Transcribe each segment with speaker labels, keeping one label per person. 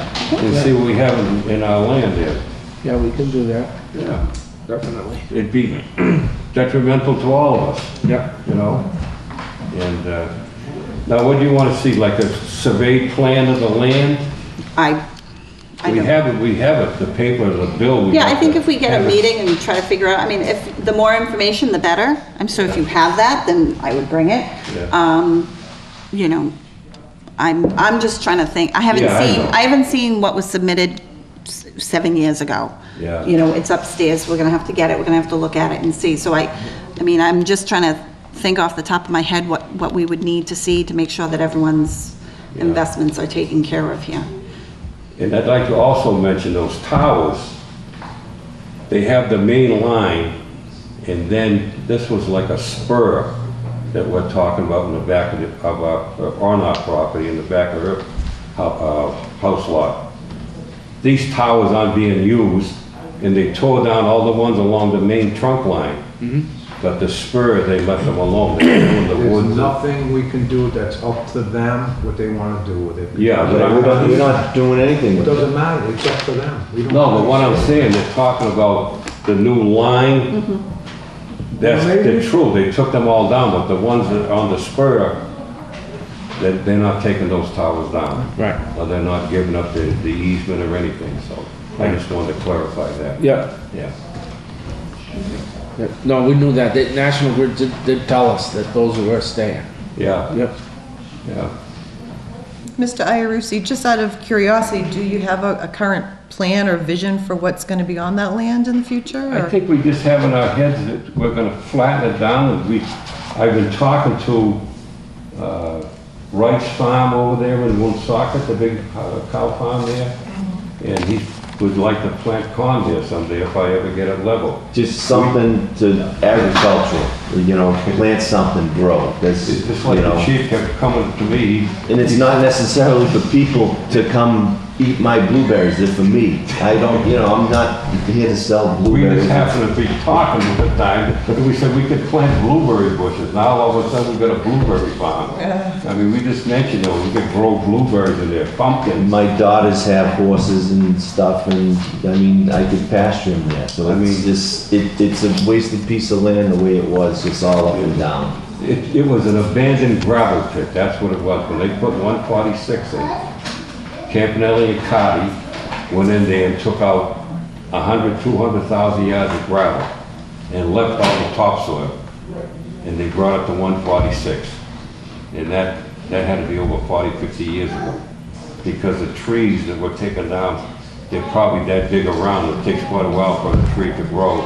Speaker 1: and see what we have in- in our land here.
Speaker 2: Yeah, we can do that.
Speaker 1: Yeah,
Speaker 2: Definitely.
Speaker 1: it'd be detrimental to all of us,
Speaker 2: Yeah.
Speaker 1: you know? And, uh, now what do you wanna see, like a survey plan of the land?
Speaker 3: I, I
Speaker 1: We
Speaker 3: don't.
Speaker 1: have it, we have it, the paper, the bill. we
Speaker 3: Yeah, I
Speaker 1: have
Speaker 3: think
Speaker 1: to
Speaker 3: if we get
Speaker 1: have
Speaker 3: a
Speaker 1: it.
Speaker 3: meeting and try to figure out, I mean, if, the more information, the better. I'm sure if you have that, then I would bring it.
Speaker 1: Yeah.
Speaker 3: Um, you know, I'm, I'm just trying to think, I haven't
Speaker 1: Yeah, I
Speaker 3: seen,
Speaker 1: know.
Speaker 3: I haven't seen what was submitted s- seven years ago.
Speaker 1: Yeah.
Speaker 3: You know, it's upstairs, we're gonna have to get it, we're gonna have to look at it and see. So I, I mean, I'm just trying to think off the top of my head what, what we would need to see to make sure that everyone's
Speaker 1: Yeah.
Speaker 3: investments are taken care of here.
Speaker 1: And I'd like to also mention those towers, they have the main line, and then this was like a spur that we're talking about in the back of, the- of our, uh, on our property, in the back of our hou- uh, house lot. These towers aren't being used, and they tore down all the ones along the main trunk line. But the spur, they left them alone, they were in the
Speaker 4: There's
Speaker 1: woods.
Speaker 4: nothing we can do that's up to them, what they want to do with it.
Speaker 1: Yeah, but I'm
Speaker 5: We're not, we're not doing anything
Speaker 4: It
Speaker 5: with it.
Speaker 4: doesn't matter, it's up to them. We don't-
Speaker 1: No, but what I'm saying, they're talking about the new line. That's, they're true, they took them all down, but the ones that are on the spur, they they're not taking those towers down.
Speaker 2: Right.
Speaker 1: Or they're not giving up the, the easement or anything, so I just wanted to clarify that.
Speaker 2: Yeah.
Speaker 1: Yeah.
Speaker 2: yeah. No, we knew that. The National Grid did, did tell us that those were staying.
Speaker 1: Yeah,
Speaker 2: Yep.
Speaker 1: yeah.
Speaker 6: Mr. Iarusi, just out of curiosity, do you have a, a current plan or vision for what's gonna be on that land in the future?
Speaker 1: I
Speaker 6: or-
Speaker 1: think we just have in our heads that we're gonna flatten it down, and we, I've been talking to, uh, Wright's Farm over there in Woonsocket, the big uh, cow farm there, and he would like to plant corn there someday if I ever get it level.
Speaker 5: Just something to agricultural, you know, plant something, grow. That's,
Speaker 1: It's just
Speaker 5: you
Speaker 1: like the
Speaker 5: know.
Speaker 1: chief kept coming to me,
Speaker 5: And it's not necessarily for people to come eat my blueberries, they're for me. I don't, you know, I'm not here to sell
Speaker 1: we
Speaker 5: blueberries.
Speaker 1: just happened to be talking at the time, and we said we could plant blueberry bushes, now all of a sudden we've got a blueberry farm. I mean, we just mentioned, you know, we could grow blueberries in there, pumpkins,
Speaker 5: My daughters have horses and stuff, and, I mean, I could pasture them there, so
Speaker 1: I
Speaker 5: it's
Speaker 1: mean-
Speaker 5: just, it, it's a wasted piece of land the way it was, just all up and down.
Speaker 1: It, it was an abandoned gravel pit, that's what it was, when they put one forty-six in, Campanelli and Cotty went in there and took out a hundred, two hundred thousand yards of gravel and left all the topsoil, and they brought it to one forty-six. And that, that had to be over 40, 50 years ago, because the trees that were taken down, they're probably that big around, it takes quite a while for a tree to grow.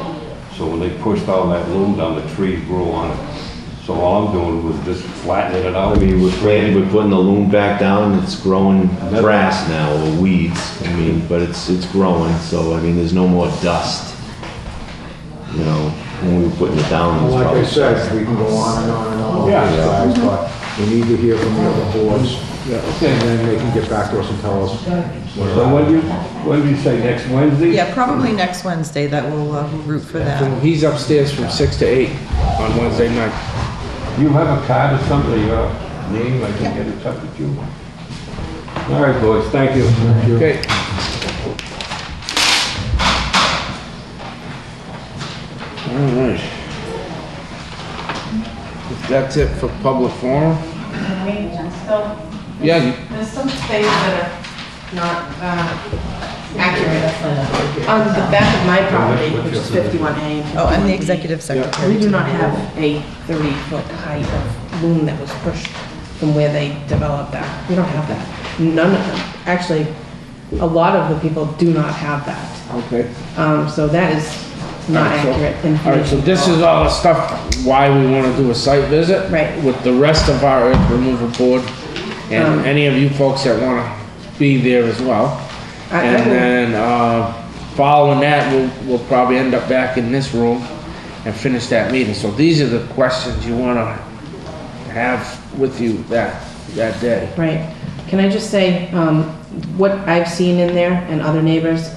Speaker 1: So when they pushed all that loom down, the trees grew on it. So all I'm doing was just flattening it out.
Speaker 5: I mean, we're planting, we're putting the loom back down, it's growing grass now, or weeds, I mean, but it's, it's growing, so, I mean, there's no more dust. You know, when we were putting it down, it was
Speaker 4: Like I
Speaker 5: probably.
Speaker 4: said, we can go on and on and on.
Speaker 1: Yeah.
Speaker 4: But we need to hear from the other boards, and then they can get back to us and tell us. what-
Speaker 1: So when you, when do you say, next Wednesday?
Speaker 6: Yeah, probably next Wednesday that we'll, uh, we'll root for that.
Speaker 2: He's upstairs from six to eight on Wednesday night.
Speaker 1: You have a card or something, your name, I can get in touch with you. All right, boys, thank you.
Speaker 2: Okay. All right. If That's it for public forum.
Speaker 7: Maybe I'm still-
Speaker 2: Yeah, you-
Speaker 7: There's some things that are not uh, accurate on the back of my property, which is 51A.
Speaker 6: Oh, I'm the executive secretary.
Speaker 7: We do not have a 30-foot height of loom that was pushed from where they developed that. We don't have that. None of them. Actually, a lot of the people do not have that.
Speaker 2: Okay.
Speaker 7: Um, So that is not
Speaker 2: Alright, so-
Speaker 7: accurate
Speaker 2: All right, so
Speaker 7: information.
Speaker 2: this is all the stuff why we want to do a site visit.
Speaker 7: Right.
Speaker 2: With the rest of our earth removal board and
Speaker 7: Um,
Speaker 2: any of you folks that want to be there as well.
Speaker 7: I- I
Speaker 2: And
Speaker 7: will-
Speaker 2: then, uh, following that, we'll, we'll probably end up back in this room and finish that meeting. So these are the questions you want to have with you that, that day.
Speaker 7: Right. Can I just say, um, what I've seen in there and other neighbors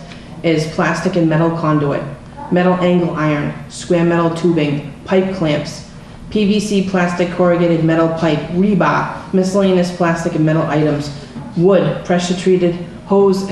Speaker 7: is plastic and metal conduit, metal angle iron, square metal tubing, pipe clamps, PVC plastic corrugated metal pipe, rebar, miscellaneous plastic and metal items, wood, pressure treated, hose